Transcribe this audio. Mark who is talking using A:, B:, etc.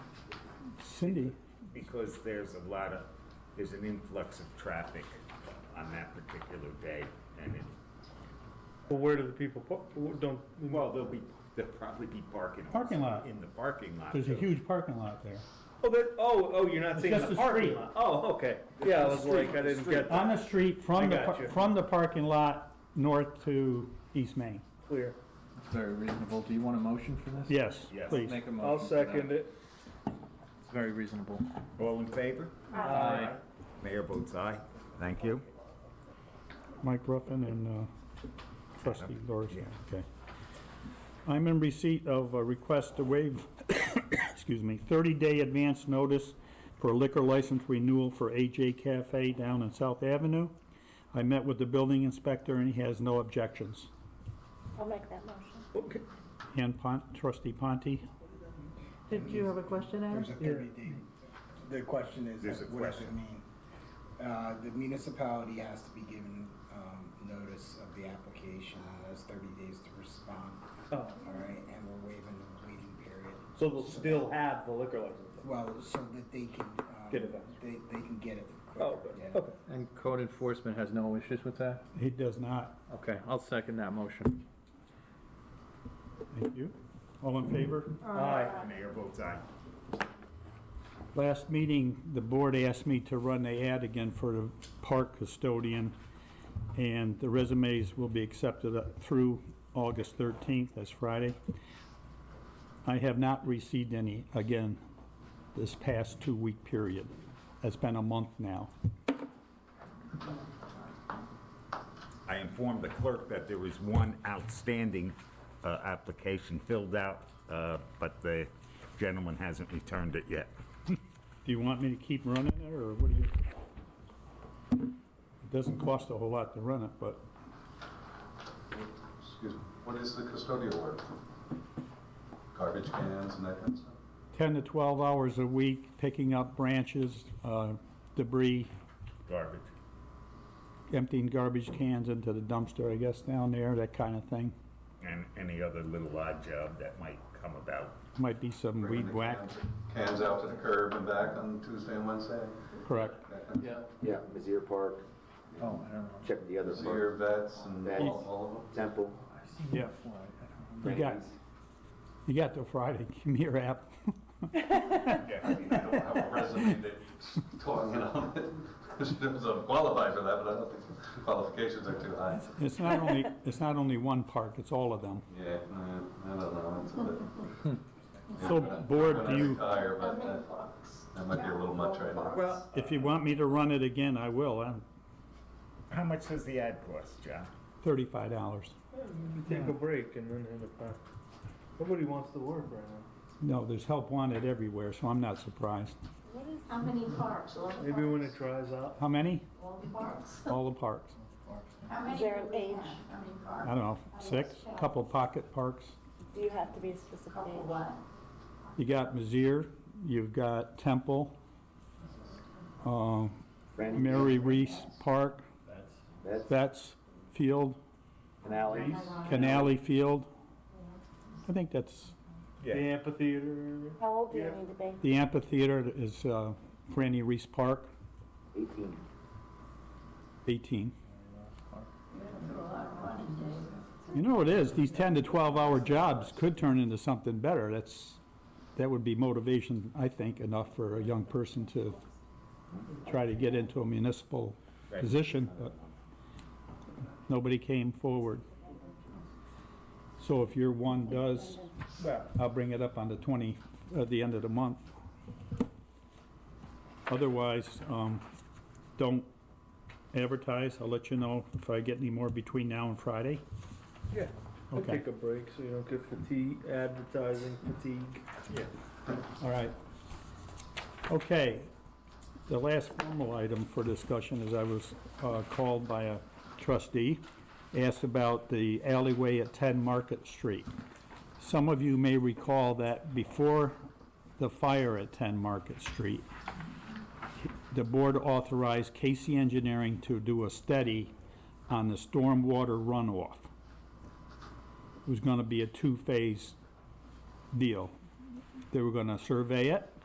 A: Cindy,
B: because there's a lot of, there's an influx of traffic on that particular day, and it,
C: Well, where do the people, park? don't,
B: well, there'll be, there'll probably be parking. also
A: Parking lot.
B: In the parking lot.
A: there's a
B: though.
A: huge parking lot there.
C: oh, that, oh, oh, you're not
A: It's
C: saying
A: just
C: the
A: a
C: parking
A: street.
C: lot? Oh, okay, yeah, I was
B: street,
C: like, I didn't
B: street.
C: get that
A: On the street
C: I
A: from the,
C: got
A: par-
C: you.
A: from the parking lot north to East Main.
C: clear.
D: Very reasonable. Do you want a motion for this?
A: Yes,
B: Yes.
A: please.
D: Make a motion.
C: I'll
D: for
C: second
D: that.
C: it.
D: It's very reasonable.
B: All in favor?
D: Aye.
B: Mayor votes aye. Thank you.
A: Mike Ruffin and uh, trustee Doris,
B: Yeah.
A: okay. I'm in receipt of a request to waive, excuse me, 30-day advance notice for liquor license renewal for AJ Cafe down in South Avenue. I met with the building inspector and he has no objections.
E: I'll make that motion.
C: Okay.
A: And Pon- trustee Ponte,
F: Did you have a question, Adam?
G: There's a thirty day, the question is,
B: There's a
G: what does it
B: question.
G: mean? Uh, the municipality has to be given, um, notice of the application, and has thirty days to respond,
C: Oh,
G: all right, and we're waiving the waiting period.
C: So they'll still have the liquor license?
G: Well, so that they can, um.
C: Get it back.
G: They, they can get it
C: Oh,
G: quicker, yeah.
C: okay.
D: And code enforcement has no issues with that?
A: he does not.
D: Okay, I'll second that motion.
A: Thank you. All in favor?
C: Aye.
B: Mayor votes aye.
A: Last meeting, the board asked me to run the ad again for the park custodian, and the resumes will be accepted up through August 13th, that's Friday. I have not received any, again, this past two-week period. It's been a month now.
B: I informed the clerk that there was one outstanding uh, application filled out, uh, but the gentleman hasn't returned it yet.
A: Do you want me to keep running it, or what do you? It doesn't cost a whole lot to run it, but
H: Excuse me, what is the custodial work? Garbage cans and that kind of stuff?
A: 10 to 12 hours a week, picking up branches, uh, debris,
B: Garbage.
A: emptying garbage cans into the dumpster, I guess, down there, that kind of thing.
B: And any other little odd job that might come about.
A: Might be some
H: Bringing
A: weed
H: the
A: whack,
H: cans- Cans out to the curb and back on Tuesday and Wednesday?
A: correct.
H: that kind of
D: Yeah.
I: Yeah, Mizzier Park,
D: Oh, I don't know.
I: check the other
H: stuff? Your
I: park,
H: vets and all all of them?
I: Temple.
D: I've seen
A: Yeah.
D: it before. I- I don't remember.
A: You got, you got till Friday, give me your app.
H: I mean, I don't have a resume that's talking on it. I'm qualified for that, but I don't think the qualifications are too high.
A: It's not only, it's not only one park, it's all of them.
H: Yeah, mm, I don't know, it's a bit.
A: So,
H: Yeah, when I-
A: Board,
H: when
A: do
H: I
A: you-
H: retire, but that- that might be a little much right now.
C: Well,
A: If you want me to run it again, I will, I'm
B: How much does the ad cost, John?
A: thirty-five dollars.
C: take a break and then have it back. Nobody wants to work right now.
A: No, there's help wanted everywhere, so I'm not surprised.
E: How many parks?
C: Maybe when it dries out.
A: How many?
J: All the parks.
A: All the parks.
J: How many
E: Is there
J: do
E: an
J: we
E: age?
J: have? How many
A: I
J: parks?
A: don't know, six, couple pocket parks.
E: Do you have to be a specific
J: Couple
E: age?
J: what?
A: You got Mizzier, you've got Temple, um,
I: Franny
A: Mary Reese Park,
I: That's
A: Betts Field,
I: Canales.
A: Canale Field. I think that's,
C: The amphitheater.
E: How old do you need to be?
A: the amphitheater is uh, Franny Reese Park,
I: Eighteen.
A: 18.
J: You're gonna put a lot of money into it.
A: You know, it is, these 10 to 12-hour jobs could turn into something better. That's, that would be motivation, I think, enough for a young person to try to get into a municipal
B: Right.
A: position, but nobody came forward. So if your one does,
B: Well,
A: I'll bring it up on the 20, at the end of the month. Otherwise, um, don't advertise. I'll let you know if I get any more between now and Friday.
C: Yeah. I'll
A: Okay.
C: take a break so you don't get fatigue, advertising fatigue.
A: All right. Okay. The last formal item for discussion is I was uh, called by a trustee, asked about the alleyway at 10 Market Street. Some of you may recall that before the fire at 10 Market Street, the board authorized Casey Engineering to do a study on the stormwater runoff. It was going to be a two-phase deal. They were going to survey it,